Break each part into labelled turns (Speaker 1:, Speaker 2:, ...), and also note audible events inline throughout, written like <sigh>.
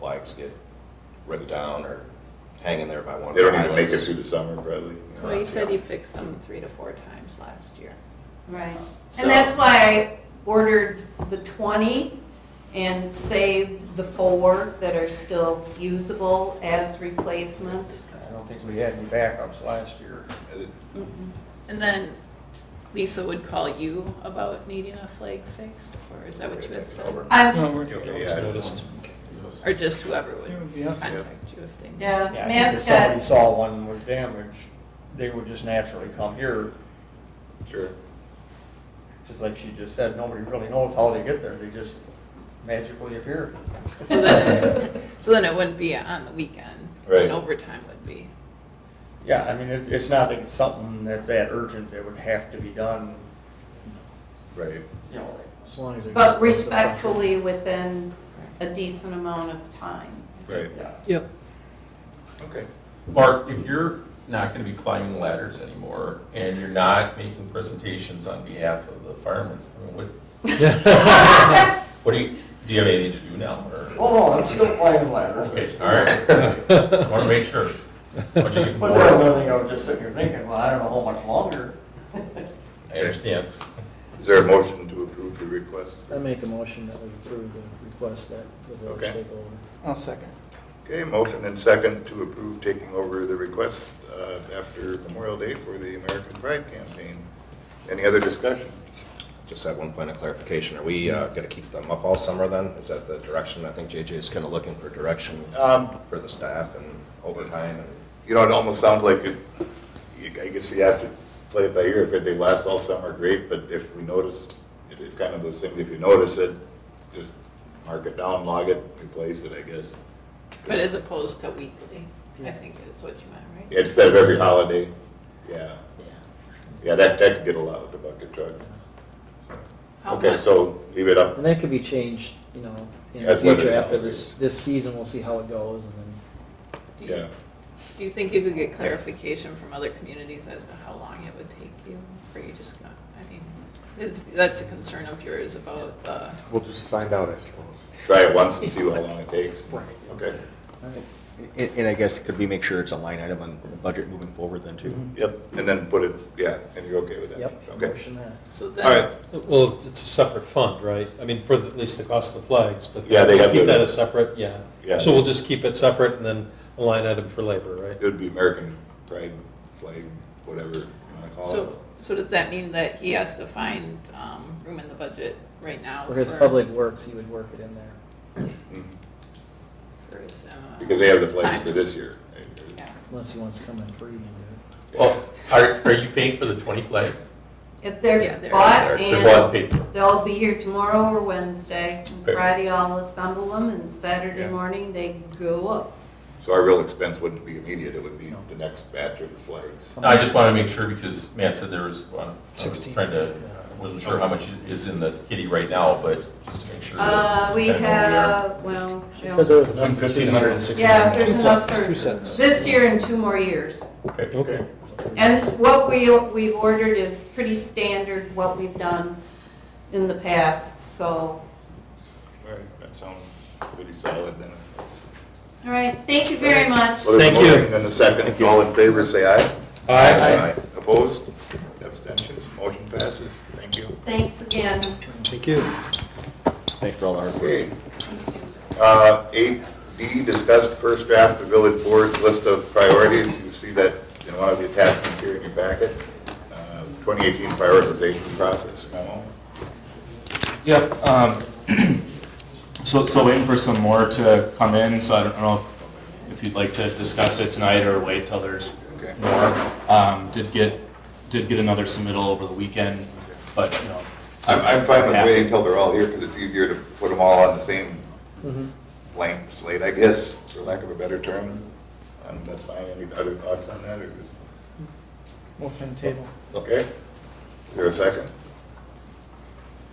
Speaker 1: pipes get ripped down or hanging there by one of
Speaker 2: They
Speaker 1: the
Speaker 2: don't even make it
Speaker 1: islands.
Speaker 2: through the summer, probably. you know.
Speaker 3: Well, he said he
Speaker 1: Yeah.
Speaker 3: fixed them three to four times last year.
Speaker 4: Right,
Speaker 1: So-
Speaker 4: and that's why I ordered the twenty and saved the four that are still usable as replacement.
Speaker 5: I don't think we had any backups last year.
Speaker 3: And then Lisa would call you about needing a flag fixed, or is that what you had said?
Speaker 1: Over.
Speaker 4: I,
Speaker 1: Okay, yeah, I don't know.
Speaker 3: Or just whoever would
Speaker 5: Yeah, I think
Speaker 3: contact you if they need.
Speaker 4: yeah,
Speaker 5: if
Speaker 4: Matt's
Speaker 5: somebody
Speaker 4: got,
Speaker 5: saw one was damaged, they would just naturally come here.
Speaker 2: Sure.
Speaker 5: Just like she just said, nobody really knows how they get there, they just magically appear.
Speaker 3: So then, it- so then it wouldn't be on the weekend.
Speaker 2: Right.
Speaker 3: And overtime would be.
Speaker 5: Yeah, I mean, it- it's not like it's something that's that urgent that would have to be done,
Speaker 2: Right.
Speaker 5: you know,
Speaker 6: As long as it goes-
Speaker 4: but respectfully within a decent amount of time.
Speaker 2: Right.
Speaker 5: yeah.
Speaker 7: Yep.
Speaker 1: <laughs>
Speaker 2: Okay.
Speaker 8: Mark, if you're not gonna be climbing ladders anymore, and you're not making presentations on behalf of the firemen, I mean, what, what do you, do you have anything to do now, or?
Speaker 5: Oh, no, I'm still climbing ladder.
Speaker 8: Okay, all right, <laughs> wanna make sure. Don't you get
Speaker 5: But that was
Speaker 8: bored?
Speaker 5: another thing I was just sitting here thinking, well, I don't know how much longer. <laughs>
Speaker 8: I understand.
Speaker 2: Uh, Is there a motion to approve the request?
Speaker 6: I make a motion that we approve the request that the village
Speaker 2: Okay.
Speaker 6: take over.
Speaker 7: I'll second.
Speaker 2: Okay, motion and second to approve taking over the request uh, after Memorial Day for the American Pride Campaign. Any other discussion?
Speaker 1: Just had one point of clarification. Are we uh, gonna keep them up all summer then? Is that the direction? I think JJ is kinda looking for direction uh,
Speaker 2: Um,
Speaker 1: for the staff and overtime and.
Speaker 2: You know, it almost sounds like it, you- I guess you have to play it by ear. If they last all summer, great, but if we notice, it- it's kind of those things, if you notice it, just mark it down, log it, replace it, I guess.
Speaker 3: But as opposed to weekly, I think is what you meant, right?
Speaker 2: Instead of every holiday, yeah. Yeah, that, that could get a lot with the bucket truck.
Speaker 3: How
Speaker 2: Okay,
Speaker 3: much?
Speaker 2: so leave it up.
Speaker 6: uh, And that could be changed, you know, in the
Speaker 2: As weather
Speaker 6: future after this,
Speaker 2: develops.
Speaker 6: this season, we'll see how it goes and then.
Speaker 3: Do you-
Speaker 2: Yeah.
Speaker 3: Do you think you could get clarification from other communities as to how long it would take you? Or you just not, I mean, it's, that's a concern of yours about the
Speaker 9: We'll just find out, I suppose.
Speaker 2: Try it once and see how long it takes.
Speaker 5: Right.
Speaker 2: Okay,
Speaker 9: And, and I guess could we make sure it's a line item on the budget moving forward then too?
Speaker 1: Mm-hmm.
Speaker 2: yep, and then put it, yeah, and you're okay with that?
Speaker 6: Yep,
Speaker 2: Okay,
Speaker 6: motion that.
Speaker 3: So
Speaker 2: all right.
Speaker 3: then,
Speaker 7: Well, it's a separate fund, right? I mean, for the- at least the cost of the flags, but.
Speaker 2: Yeah, they have
Speaker 7: Keep
Speaker 2: to-
Speaker 7: that as separate, yeah.
Speaker 2: Yeah.
Speaker 7: So we'll just keep it separate and then a line item for labor, right?
Speaker 2: It would be American pride flag, whatever you want to call it.
Speaker 3: so, so does that mean that he has to find, um, room in the budget right now?
Speaker 6: For his public works, he would work it in there.
Speaker 2: Mhm.
Speaker 3: for his, uh,
Speaker 2: Because they have the flags
Speaker 3: time?
Speaker 2: for this year.
Speaker 3: Yeah.
Speaker 6: Unless he wants to come in free and do
Speaker 8: Well, are, are you paying for the twenty flags?
Speaker 4: If
Speaker 3: Yeah,
Speaker 4: they're
Speaker 3: they're-
Speaker 2: they're-
Speaker 4: bought
Speaker 8: They're bought and
Speaker 4: and
Speaker 8: paid for.
Speaker 4: they'll be here tomorrow or Wednesday. And
Speaker 8: Okay.
Speaker 4: Friday I'll assemble them and Saturday
Speaker 2: Yeah.
Speaker 4: morning they go up.
Speaker 2: So our real expense wouldn't be immediate, it would be the next batch of the flags.
Speaker 8: No, I just wanna make sure, because Matt said there was, I was
Speaker 6: 16.
Speaker 8: trying to, I wasn't sure how much is in the kitty right now, but just to make sure.
Speaker 4: Uh,
Speaker 8: that
Speaker 4: we
Speaker 8: kinda know where we are.
Speaker 4: have, well,
Speaker 6: it.
Speaker 4: you
Speaker 6: She
Speaker 4: know,
Speaker 6: said there was enough. for two
Speaker 7: Fifteen hundred and
Speaker 6: years.
Speaker 7: sixty.
Speaker 4: yeah, there's enough
Speaker 7: It's two
Speaker 4: for
Speaker 7: cents.
Speaker 4: this year and two more years.
Speaker 7: Okay.
Speaker 4: And what we, we've ordered is pretty standard, what we've done in the past, so.
Speaker 2: All right, that sounds pretty solid then.
Speaker 4: All right, thank you very much.
Speaker 2: Well, there's a
Speaker 7: Thank you.
Speaker 2: motion And the second, all in favor, say aye.
Speaker 7: Aye.
Speaker 2: Opposed? Abstentions? Motion passes. Thank you.
Speaker 4: Thanks again.
Speaker 7: Thank you.
Speaker 9: Thanks for all the hard work.
Speaker 2: Okay. Uh, eight D, discussed first draft of village board's list of priorities. You see that in one of the attachments here in your packet. Uh, 2018 prioritization process memo.
Speaker 10: Yep, um, <clears throat> so, so waiting for some more to come in, so I don't know if- if you'd like to discuss it tonight or wait till there's
Speaker 2: Okay.
Speaker 10: more. Um, did get, did get another submittal over the weekend, but, you know,
Speaker 2: I'm, I'm fine with
Speaker 10: Yeah.
Speaker 2: waiting until they're all here because it's easier to put them all on the same
Speaker 5: Mm-hmm.
Speaker 2: blank slate, I guess, for lack of a better term. And that's fine. Any other thoughts on that or just,
Speaker 5: Motion table.
Speaker 2: okay? Is there a second?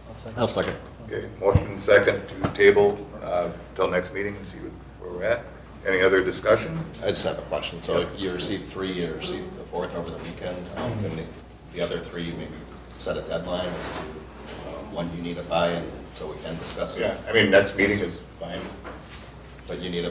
Speaker 6: I'll
Speaker 1: Uh,
Speaker 6: second.
Speaker 9: I'll second.
Speaker 2: Okay, motion second to table, uh, till next meeting and see where we're at. Any other discussion?
Speaker 1: I just have a question. So you received three, you received the fourth over the weekend. Um, And the- the other three, maybe set a deadline as to um, when you need it by, and so we can discuss
Speaker 2: Yeah,
Speaker 1: it.
Speaker 2: I mean, next meeting is fine.
Speaker 1: But you need a